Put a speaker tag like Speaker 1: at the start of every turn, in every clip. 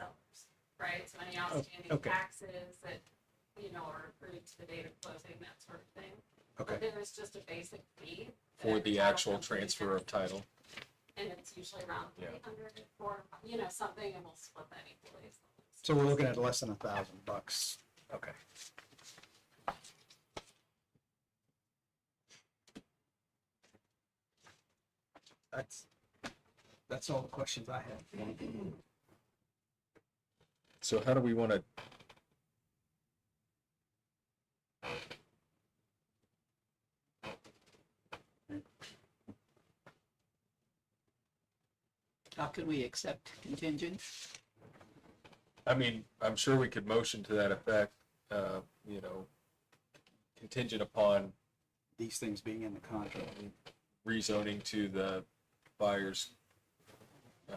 Speaker 1: sellers, right? So any outstanding
Speaker 2: Oh, okay.
Speaker 1: taxes that, you know, are accrued to the date of closing, that sort of thing.
Speaker 2: Okay.
Speaker 1: But Then there's just a basic fee. that
Speaker 3: for
Speaker 1: every
Speaker 3: the
Speaker 1: title
Speaker 3: actual
Speaker 1: company
Speaker 3: transfer of
Speaker 1: has,
Speaker 3: title.
Speaker 1: And it's usually around
Speaker 3: Yeah.
Speaker 1: three hundred or, you know, something, and we'll split that equally.
Speaker 2: So we're looking at less than a thousand bucks. Okay. That's, that's all the questions I have.
Speaker 3: So how do we want to?
Speaker 4: How can we accept contingent?
Speaker 3: I mean, I'm sure we could motion to that effect. Uh, you know, contingent upon
Speaker 2: These things being in the contract.
Speaker 3: rezoning to the buyer's. Uh,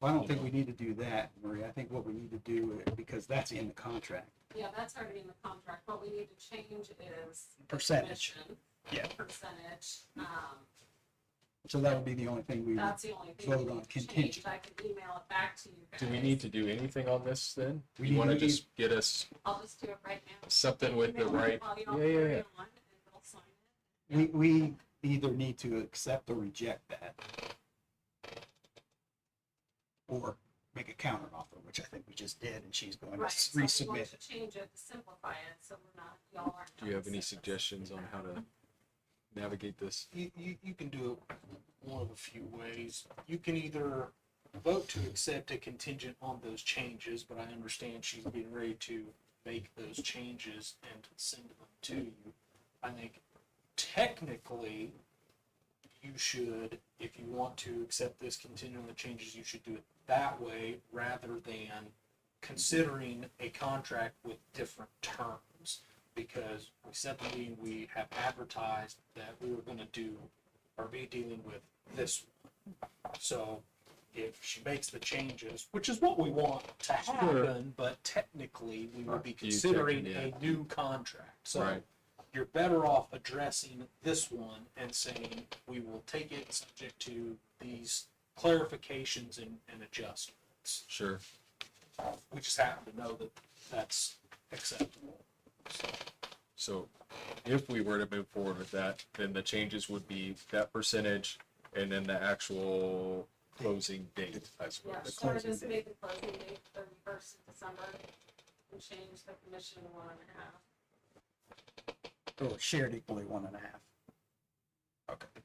Speaker 2: Well, I don't think we need to do that, Marie. I think what we need to do, is- because that's in the contract.
Speaker 1: Yeah, that's already in the contract. What we need to change is. the
Speaker 2: Percentage.
Speaker 1: commission
Speaker 2: Yeah.
Speaker 1: Percentage, um,
Speaker 2: So that would be the only thing we, would-
Speaker 1: that's the only thing we
Speaker 2: Vote on
Speaker 1: need to change.
Speaker 2: contingent.
Speaker 1: I can email it back to you guys.
Speaker 3: do we need to do anything on this then?
Speaker 2: We
Speaker 3: you want to
Speaker 2: need-
Speaker 3: just get us
Speaker 1: I'll just do it right now.
Speaker 3: something with the
Speaker 1: Email it
Speaker 3: right?
Speaker 1: while you
Speaker 3: Yeah,
Speaker 1: all
Speaker 3: yeah,
Speaker 1: carry
Speaker 3: yeah.
Speaker 1: on, and they'll sign it.
Speaker 2: we, we either need to accept or reject that. Or make a counter offer, which I think we just did, and she's going to
Speaker 1: Right, so we want
Speaker 2: resubmit.
Speaker 1: to Change it, simplify it, so we're not, y'all aren't.
Speaker 3: Do you have any
Speaker 1: having
Speaker 3: suggestions on how to navigate this?
Speaker 5: you, you, you can do it one of a few ways. You can either vote to accept a contingent on those changes, but I understand she's getting ready to make those changes and send them to you. I think technically, you should, if you want to accept this contingent on the changes, you should do it that way rather than considering a contract with different terms because we said the meeting we have advertised that we were gonna do or be dealing with this. one. So if she makes the changes, which is what we want to happen, but technically we would be
Speaker 3: You
Speaker 5: considering
Speaker 3: technically-
Speaker 5: a new contract. So
Speaker 3: Right.
Speaker 5: you're better off addressing this one and saying, we will take it subject to these clarifications and, and adjustments.
Speaker 3: Sure.
Speaker 5: We just happen to know that that's acceptable.
Speaker 3: So if we were to move forward with that, then the changes would be that percentage and then the actual closing date, I suppose.
Speaker 1: Yeah,
Speaker 2: the
Speaker 1: so I
Speaker 2: closing
Speaker 1: just
Speaker 2: date.
Speaker 1: made the closing date thirty-first of December and change the commission to one and a half.
Speaker 2: Or shared equally one and a half. Okay.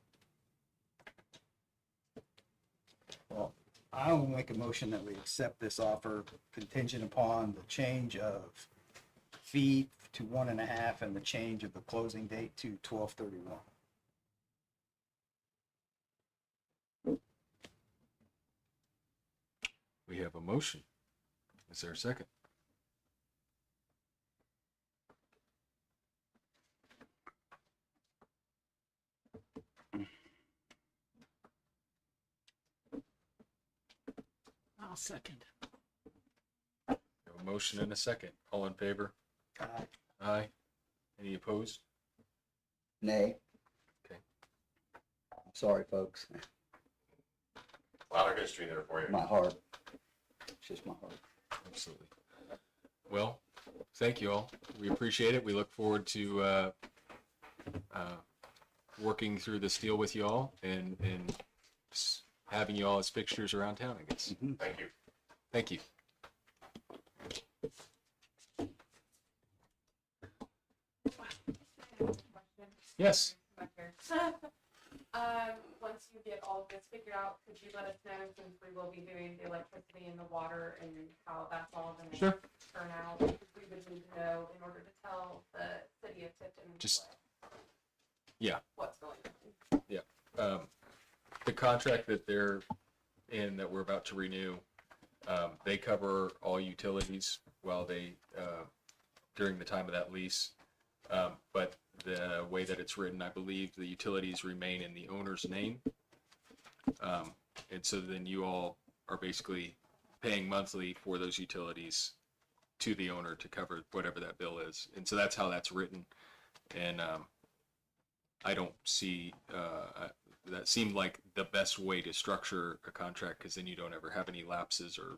Speaker 2: Well, I will make a motion that we accept this offer contingent upon the change of fee to one and a half and the change of the closing date to twelve thirty-one.
Speaker 3: We have a motion. Is there a second?
Speaker 4: I'll second.
Speaker 3: We have a motion and a second. All in favor? Aye. Any opposed?
Speaker 6: Nay.
Speaker 3: Okay.
Speaker 6: Sorry, folks.
Speaker 7: lot of history there for you.
Speaker 6: My heart. It's just my heart.
Speaker 3: Absolutely. Well, thank you all. We appreciate it. We look forward to uh, uh, working through this deal with you all and, and s- having you all as fixtures around town, I guess.
Speaker 7: Thank you.
Speaker 3: Thank you. Yes.
Speaker 8: Um, once you get all of this figured out, could you let us know since we will be doing the electricity and the water and how that's all gonna
Speaker 3: Sure.
Speaker 8: turn out? We would need to know in order to tell the city of Tipton
Speaker 3: Just-
Speaker 8: what-
Speaker 3: yeah.
Speaker 8: What's going on?
Speaker 3: um, the contract that they're in that we're about to renew, um, they cover all utilities while they, uh, during the time of that lease. Um, but the way that it's written, I believe the utilities remain in the owner's name. Um, and so then you all are basically paying monthly for those utilities to the owner to cover whatever that bill is. And so that's how that's written. And, um, I don't see, uh, I- that seemed like the best way to structure a contract because then you don't ever have any lapses or